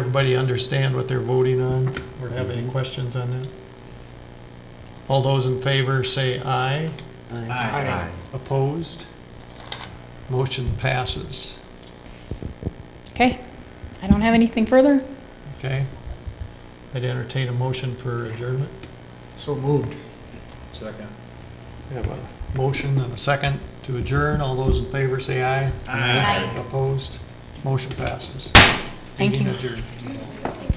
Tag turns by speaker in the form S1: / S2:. S1: Everybody understand what they're voting on or have any questions on that? All those in favor say aye.
S2: Aye.
S1: Opposed? Motion passes.
S3: Okay, I don't have anything further.
S1: Okay? I'd entertain a motion for adjournment.
S2: So moved.
S4: Second.
S1: We have a motion and a second to adjourn. All those in favor say aye.
S3: Aye.
S1: Opposed? Motion passes.
S3: Thank
S1: Meeting
S3: you.
S1: adjourned.